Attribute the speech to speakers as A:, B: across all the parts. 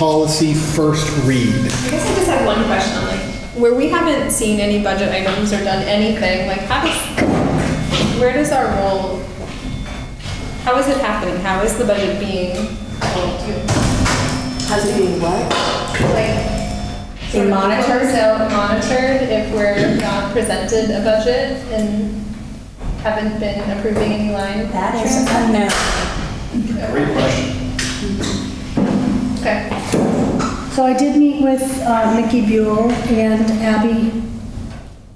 A: policy first read.
B: I guess I just have one question, like, where we haven't seen any budget items or done anything, like, how does, where does our role, how is it happening? How is the budget being rolled to?
C: How's it being what?
B: Like,
C: Being monitored?
B: So monitored if we're not presented a budget and haven't been approving any line.
C: That is
B: transfers?
C: unknown.
A: Great question.
B: Okay.
D: So I did meet with uh, Mickey Buell and Abby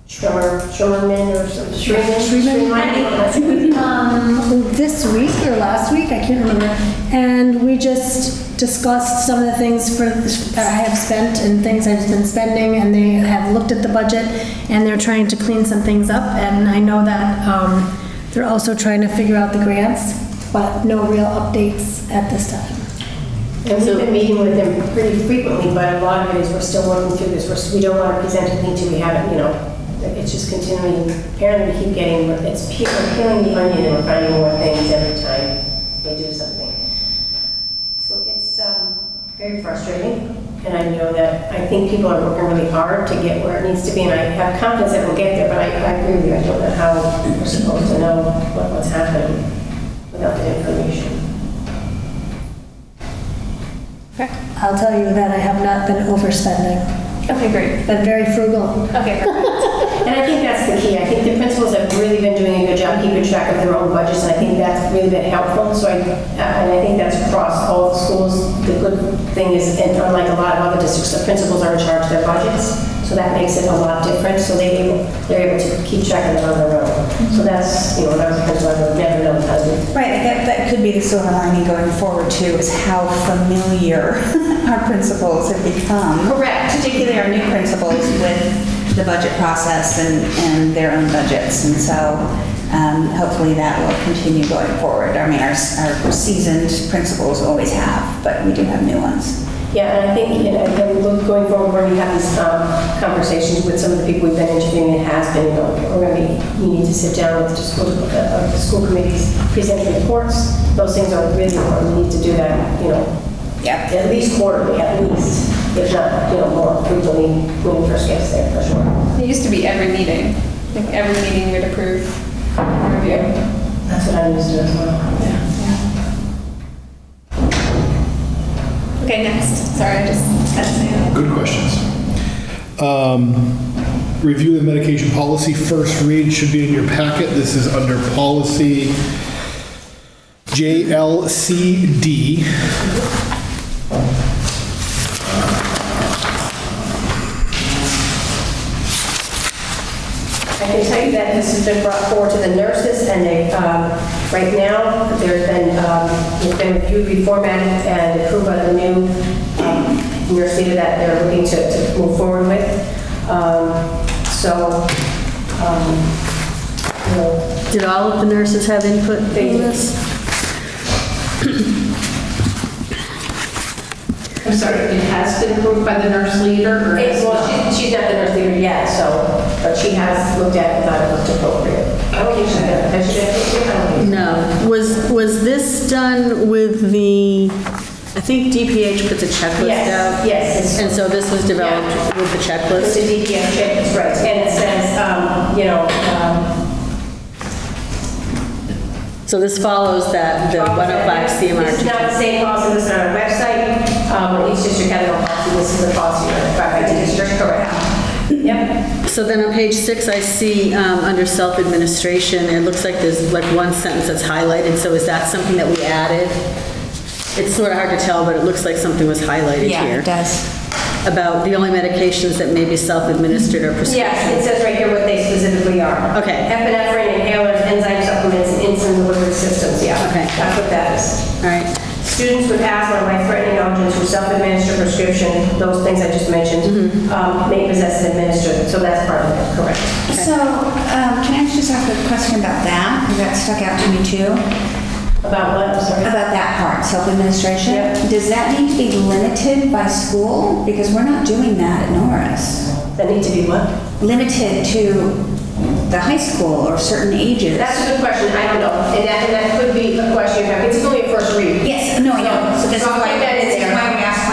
E: Shore, shoreman or something.
D: Shreeman um, this week or last week, I can't remember. And we just discussed some of the things for, that I have spent and things I've been spending, and they have looked at the budget, and they're trying to clean some things up. And I know that um, they're also trying to figure out the grants, but no real updates at this time.
E: And we've been meeting with them pretty frequently, but a lot of it is we're still working through this. We're- We don't want to present anything till we have it, you know. It's just continuing, apparently we keep getting, it's pe- we're peeling the onion and we're finding more things every time they do something. So it's um, very frustrating. And I know that, I think people are working really hard to get where it needs to be. And I have confidence that we'll get there, but I I agree with you. I don't know how we're supposed to know what- what's happening without the information.
D: I'll tell you that I have not been overspending,
B: Okay, great.
D: been very frugal.
B: Okay, perfect.
E: And I think that's the key. I think the principals have really been doing a good job keeping track of their own budgets, and I think that's really been helpful. So I, uh, and I think that's across all the schools. The good thing is, and unlike a lot of other districts, the principals are in charge of their budgets, so that makes it a lot different. So they, able- they're able to keep track of it on their own. So that's, you know, when I was a principal, I would never know how to.
C: Right, that, that could be the silver lining going forward too, is how familiar our principals have become.
B: Correct.
C: Particularly our new principals with the budget process and, and their own budgets. And so um, hopefully that will continue going forward. I mean, our, s- our seasoned principals always have, but we do have new ones.
E: Yeah, and I think, you know, and look, going forward, we're going to have these um, conversations with some of the people we've been interviewing that has been, you know, we're going to be, you need to sit down with the school, uh, uh, the school committees, present the reports. Those things are really important. We need to do that, you know,
C: Yep.
E: at least quarterly, at least, if not, you know, more frequently when we first get there, for sure.
B: It used to be every meeting, like, every meeting we'd approve, review.
E: That's what I'm used to as well.
B: Okay, next. Sorry, I just had to say that.
A: Good questions. Um, Review the medication policy first read should be in your packet. This is under policy JLCD.
E: I can tell you that this has been brought forward to the nurses, and they, um, right now, there's been, um, it's been reviewed, reformatted, and approved by the new um, nurse leader that they're looking to to move forward with. Um, So, um, you know,
D: Did all of the nurses have input in
E: They did.
D: this?
F: I'm sorry, it has been approved by the nurse leader or
E: it's-
F: has
E: well,
F: not?
E: she- she's not the nurse leader yet, so, but she has looked at it and thought it looked appropriate. I don't think she did. Has she done it? I don't think so.
G: No. Was, was this done with the, I think DPH puts a checklist
E: Yes,
G: out?
E: yes, it's-
G: And so this was developed with the
E: It's a
G: checklist?
E: DPS check, that's right, and it says, um, you know, um,
G: So this follows that, the 105
E: It's not the
G: CMR.
E: same policy that's on our website, um, it's just your capital policy, this is the policy ratified by the district, correct? Yep,
G: So then on page six, I see, um, under self-administration, it looks like there's like one sentence that's highlighted, so is that something that we added? It's sort of hard to tell, but it looks like something was highlighted here.
C: does.
G: About the only medications that may be self-administered or prescribed.
E: yes, it says right here what they specifically are.
G: Okay.
E: Epinephrine inhalers, enzyme supplements, and insulin delivery systems, yeah.
G: Okay.
E: That's what that is.
G: All right.
E: Students with asthma, life-threatening allergens who self-administer prescription, those things I just
G: Mm-hmm.
E: mentioned, um, may possess and administer, so that's part of it, correct?
C: So, um, can I just ask a question about that? 'Cause That stuck out to me too.
E: About what, I'm sorry?
C: About that part, self-administration?
E: Yep.
C: Does that need to be limited by school? Because we're not doing that at Norris.
E: That need to be what?
C: Limited to the high school or certain ages?
E: That's a good question, I don't know, and that, and that could be a question, you have. it's only a first read.
C: Yes, no, I know. So
E: So
C: that's
E: I'll
C: why-
E: keep that